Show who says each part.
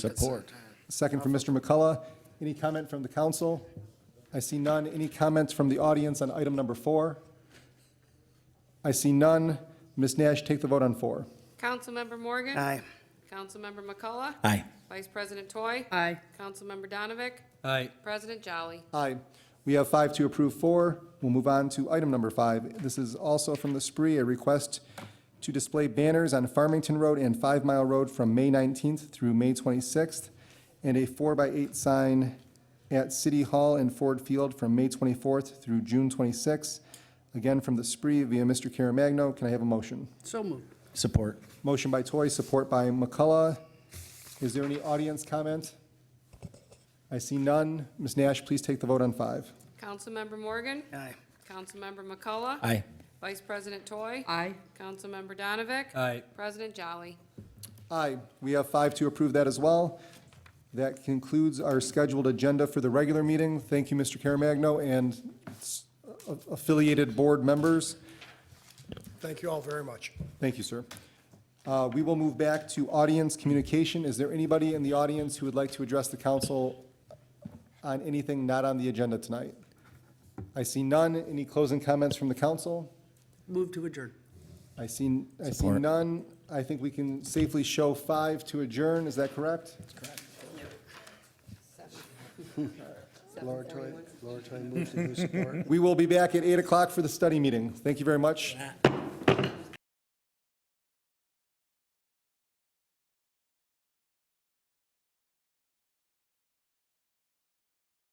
Speaker 1: Support. Second from Mr. McCullough. Any comment from the council? I see none. Any comments from the audience on item number four? I see none. Ms. Nash, take the vote on four.
Speaker 2: Councilmember Morgan?
Speaker 3: Aye.
Speaker 2: Councilmember McCullough?
Speaker 4: Aye.
Speaker 2: Vice President Toy?
Speaker 3: Aye.
Speaker 2: Councilmember Donavick?
Speaker 4: Aye.
Speaker 2: President Jolly?
Speaker 1: Aye. We have five to approve four. We'll move on to item number five. This is also from the spree, a request to display banners on Farmington Road and Five Mile Road from May 19th through May 26th, and a four-by-eight sign at City Hall and Ford Field from May 24th through June 26th. Again, from the spree via Mr. Caremagno. Can I have a motion?
Speaker 3: So moved.
Speaker 4: Support.
Speaker 1: Motion by Toy, support by McCullough. Is there any audience comment? I see none. Ms. Nash, please take the vote on five.
Speaker 2: Councilmember Morgan?
Speaker 3: Aye.
Speaker 2: Councilmember McCullough?
Speaker 4: Aye.
Speaker 2: Vice President Toy?
Speaker 3: Aye.
Speaker 2: Councilmember Donavick?
Speaker 4: Aye.
Speaker 2: President Jolly?
Speaker 1: Aye. We have five to approve that as well. That concludes our scheduled agenda for the regular meeting. Thank you, Mr. Caremagno, and s- a- affiliated board members.
Speaker 5: Thank you all very much.
Speaker 1: Thank you, sir. Uh, We will move back to audience communication. Is there anybody in the audience who would like to address the council on anything not on the agenda tonight? I see none. Any closing comments from the council?
Speaker 3: Move to adjourn.
Speaker 1: I see, I see
Speaker 4: Support.
Speaker 1: none. I think we can safely show five to adjourn. Is that correct?
Speaker 5: Laura Toy, Laura Toy moves to who support.
Speaker 1: We will be back at 8 o'clock for the study meeting. Thank you very much.